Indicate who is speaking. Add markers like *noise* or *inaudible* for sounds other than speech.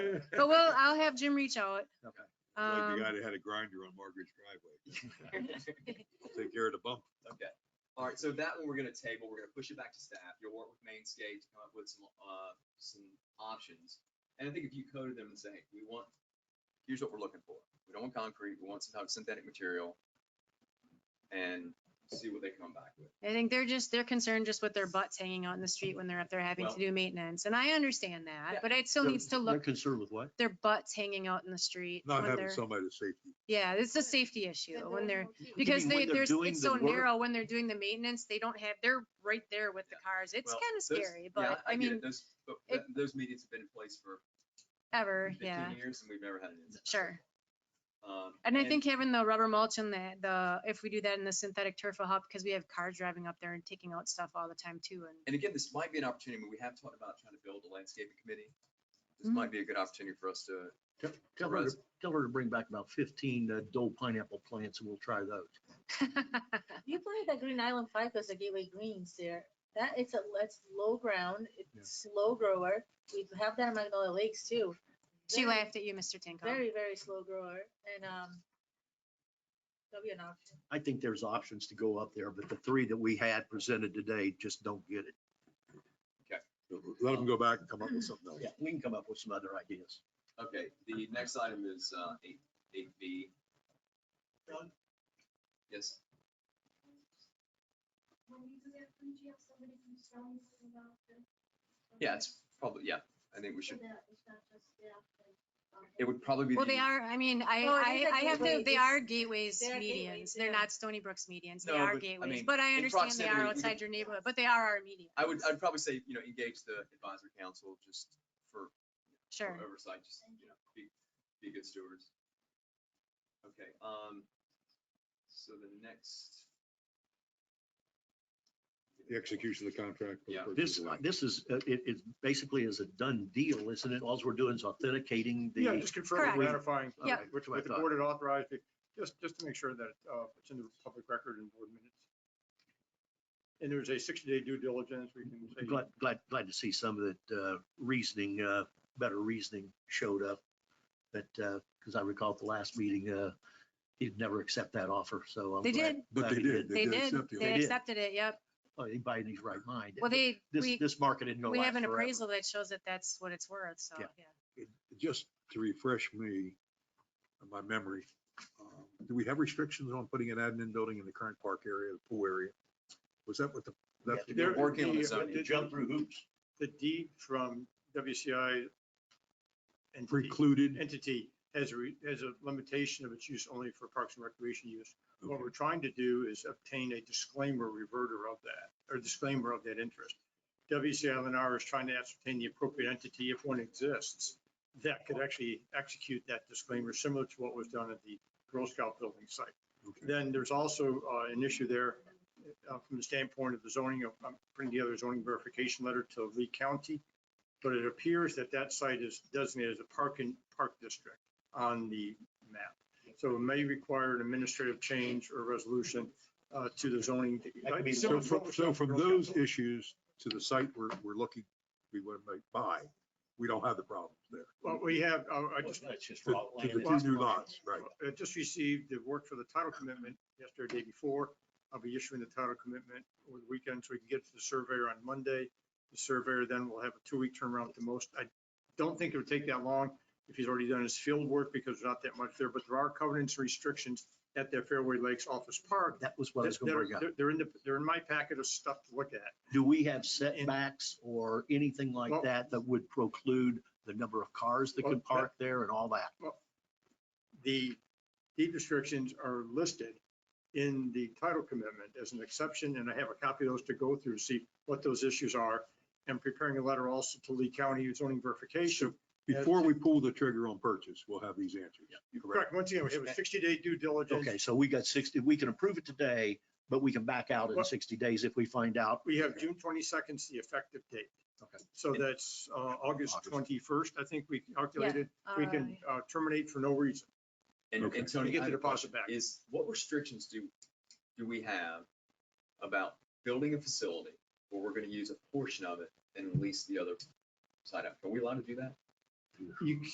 Speaker 1: *laughs*
Speaker 2: But well, I'll have Jim reach out.
Speaker 3: Okay.
Speaker 1: Like the guy
Speaker 2: Um,
Speaker 1: that had a grinder on Margaret's driveway. Take care of the bump.
Speaker 4: Okay, all right, so that one we're gonna table, we're gonna push it back to staff, you'll work with Mainscape to come up with some, uh, some options. And I think if you coded them and say, we want, here's what we're looking for, we don't want concrete, we want some type of synthetic material. And see what they come back with.
Speaker 2: I think they're just, they're concerned just with their butts hanging out in the street when they're up there having to
Speaker 4: Well-
Speaker 2: do maintenance. And I understand that,
Speaker 4: Yeah.
Speaker 2: but it still
Speaker 3: They're-
Speaker 2: needs to
Speaker 3: They're
Speaker 2: look,
Speaker 3: concerned with what?
Speaker 2: their butts hanging out in the street.
Speaker 1: Not
Speaker 2: when
Speaker 1: having
Speaker 2: they're-
Speaker 1: somebody to safety.
Speaker 2: Yeah, it's a safety issue when they're,
Speaker 3: You
Speaker 2: because
Speaker 3: mean when
Speaker 2: they,
Speaker 3: they're
Speaker 2: there's,
Speaker 3: doing
Speaker 2: it's
Speaker 3: the
Speaker 2: so
Speaker 3: work?
Speaker 2: narrow when they're doing the maintenance, they don't have, they're right there with the cars. It's
Speaker 4: Well,
Speaker 2: kind of
Speaker 4: Those-
Speaker 2: scary,
Speaker 4: yeah,
Speaker 2: but I
Speaker 4: get it.
Speaker 2: mean,
Speaker 4: Those, but
Speaker 2: it-
Speaker 4: that- those meetings have been in place for
Speaker 2: ever, yeah.
Speaker 4: fifteen years and we've never had an incident.
Speaker 2: Sure.
Speaker 4: Um,
Speaker 2: And I think having the rubber mulch and the, the, if we do that in the synthetic turf will help because we have cars driving up there and taking out stuff all the time too. And
Speaker 4: And again, this might be an opportunity, we have talked about trying to build a landscaping committee.
Speaker 2: Mm-hmm.
Speaker 4: This might be a good opportunity for us to
Speaker 3: Tell- Tell her, to-
Speaker 4: Res-
Speaker 3: tell her to bring back about fifteen uh, Dole pineapple plants and we'll try those.
Speaker 5: You planted that Green Island ficus at Gateway Greens there. That, it's a, that's low ground,
Speaker 3: Yeah.
Speaker 5: it's slow grower. We have that in Magnolia Lakes too.
Speaker 2: she
Speaker 5: Very,
Speaker 2: laughed at you, Mr. Tinkoff.
Speaker 5: Very, very slow grower and, um, that'll be an option.
Speaker 3: I think there's options to go up there, but the three that we had presented today just don't get it.
Speaker 1: Let them go back and come up
Speaker 2: *clears throat*
Speaker 1: with something else.
Speaker 3: Yeah, we can come up with some other ideas.
Speaker 4: Okay, the next item is uh, eight, eight B.
Speaker 6: Doug?
Speaker 4: Yes,
Speaker 6: When you do that, couldn't you have somebody from Stone come out there?
Speaker 4: yeah, it's probably, yeah, I think we
Speaker 6: So
Speaker 4: should,
Speaker 6: that it's not just staff and, um,
Speaker 4: it would probably be.
Speaker 2: Well,
Speaker 4: the-
Speaker 2: Oh, they are, I mean, I,
Speaker 5: Well, it is
Speaker 2: I,
Speaker 5: a
Speaker 2: I have to,
Speaker 5: gateway.
Speaker 2: they
Speaker 5: It's-
Speaker 2: are gateways
Speaker 5: they're
Speaker 2: medians.
Speaker 5: gateways,
Speaker 2: They're
Speaker 5: yeah.
Speaker 2: not Stony Brook's medians. They
Speaker 4: No,
Speaker 2: are
Speaker 4: but, I
Speaker 2: gateways,
Speaker 4: mean,
Speaker 2: but I
Speaker 4: in
Speaker 2: understand they
Speaker 4: proximity,
Speaker 2: are
Speaker 4: you
Speaker 2: outside your neighborhood, but they are our medians.
Speaker 4: I would, I'd probably say, you know, engage the advisory council just for for
Speaker 2: Sure.
Speaker 4: oversight, just, you know, be, be good stewards. Okay, um, so the next.
Speaker 1: The execution of the contract. for the
Speaker 4: Yeah.
Speaker 1: purchase
Speaker 3: This,
Speaker 1: of land.
Speaker 3: this is, uh, it, it basically is a done deal, isn't it? All we're doing is authenticating the.
Speaker 7: Yeah, just confirming,
Speaker 2: Correct.
Speaker 7: ratifying
Speaker 3: All right, Which way I
Speaker 7: that the
Speaker 3: thought.
Speaker 7: board had authorized it, just, just to make sure that uh, it's in the public record and board minutes. And there's a 60-day due diligence, we can
Speaker 3: I'm
Speaker 7: say.
Speaker 3: Glad, glad, glad to see some of that uh, reasoning, uh, better reasoning showed up. But, because I recall at the last meeting, uh, he'd never accept that offer, so. I'm
Speaker 2: They
Speaker 3: glad-
Speaker 2: did.
Speaker 1: But
Speaker 3: glad
Speaker 1: they
Speaker 3: he
Speaker 1: did.
Speaker 2: They did.
Speaker 1: accept the
Speaker 2: They
Speaker 3: They did.
Speaker 2: accepted it. Yep.
Speaker 3: Oh, Anybody in his right mind.
Speaker 2: Well, they,
Speaker 3: This,
Speaker 2: we,
Speaker 3: this market isn't going
Speaker 2: we
Speaker 3: to
Speaker 2: have
Speaker 3: last
Speaker 2: an
Speaker 3: forever.
Speaker 2: appraisal that shows that that's what it's worth. So,
Speaker 3: Yeah.
Speaker 2: yeah.
Speaker 1: Just to refresh me, and my memory, um, do we have restrictions on putting an admin building in the current park area, the pool area? Was that what the, that's
Speaker 3: Yeah,
Speaker 1: the
Speaker 7: There-
Speaker 4: We're working on the
Speaker 7: the-
Speaker 4: zoning.
Speaker 7: the-
Speaker 3: Jump through hoops.
Speaker 7: The deed from WCI entity,
Speaker 1: precluded?
Speaker 7: entity has a, re- has a limitation of its use only for parks and recreation use. What we're trying to do is obtain a disclaimer reverter of that, or disclaimer of that interest. WCI Lennar is trying to ascertain the appropriate entity, if one exists, that could actually execute that disclaimer, similar to what was done at the Girl Scout building site.
Speaker 1: Okay.
Speaker 7: Then there's also uh, an issue there uh, from the standpoint of the zoning, of- I'm putting together a zoning verification letter to Lee County. But it appears that that site is designated as a parking, park district on the map. So it may require an administrative change or resolution uh, to the zoning.
Speaker 3: That could be
Speaker 1: So
Speaker 7: Similar to what
Speaker 1: from,
Speaker 7: was
Speaker 1: so
Speaker 7: done
Speaker 1: from
Speaker 7: for Girl Scout
Speaker 1: those
Speaker 7: building.
Speaker 1: issues to the site we're, we're looking, we want to make buy, we don't have the problems there.
Speaker 7: Well, we have, uh, I just
Speaker 3: That's just
Speaker 1: To
Speaker 3: raw
Speaker 1: to
Speaker 3: land.
Speaker 1: the two new lots, right?
Speaker 7: I just received the work for the title commitment yesterday, day before. I'll be issuing the title commitment over the weekend so we can get it to the surveyor on Monday. The surveyor then will have a two-week turnaround at the most. I don't think it would take that long if he's already done his field work because there's not that much there, but there are covenants and restrictions at the Fairway Lakes Office Park.
Speaker 3: That was what I was going to
Speaker 7: They're-
Speaker 3: bring up.
Speaker 7: they're- They're in the, they're in my packet of stuff to look at.
Speaker 3: Do we have setbacks or anything like
Speaker 7: Well-
Speaker 3: that that would preclude the number of cars that
Speaker 7: Well,
Speaker 3: could
Speaker 7: that-
Speaker 3: park there and all that?
Speaker 7: the deed restrictions are listed in the title commitment as an exception, and I have a copy of those to go through, see what those issues are. And preparing a letter also to Lee County zoning verification.
Speaker 1: Before we pull the trigger on purchase, we'll have these answers. Correct.
Speaker 7: Correct, once again, we have a sixty day due diligence.
Speaker 3: Okay, so we got 60, we can approve it today, but we can back out in
Speaker 7: Well-
Speaker 3: 60 days if we find out.
Speaker 7: We have June twenty second is the effective date.
Speaker 3: Okay.
Speaker 7: So that's uh, August
Speaker 3: August.
Speaker 7: twenty first, I think we calculated, we can
Speaker 2: Alright.
Speaker 7: uh, terminate for no reason.
Speaker 4: And,
Speaker 1: Okay.
Speaker 4: and Tony,
Speaker 7: You get
Speaker 4: I
Speaker 7: the
Speaker 4: have a
Speaker 7: deposit
Speaker 4: question.
Speaker 7: back.
Speaker 4: Is, what restrictions do, do we have about building a facility where we're gonna use a portion of it and lease the other side out? Are we allowed to do that?
Speaker 7: You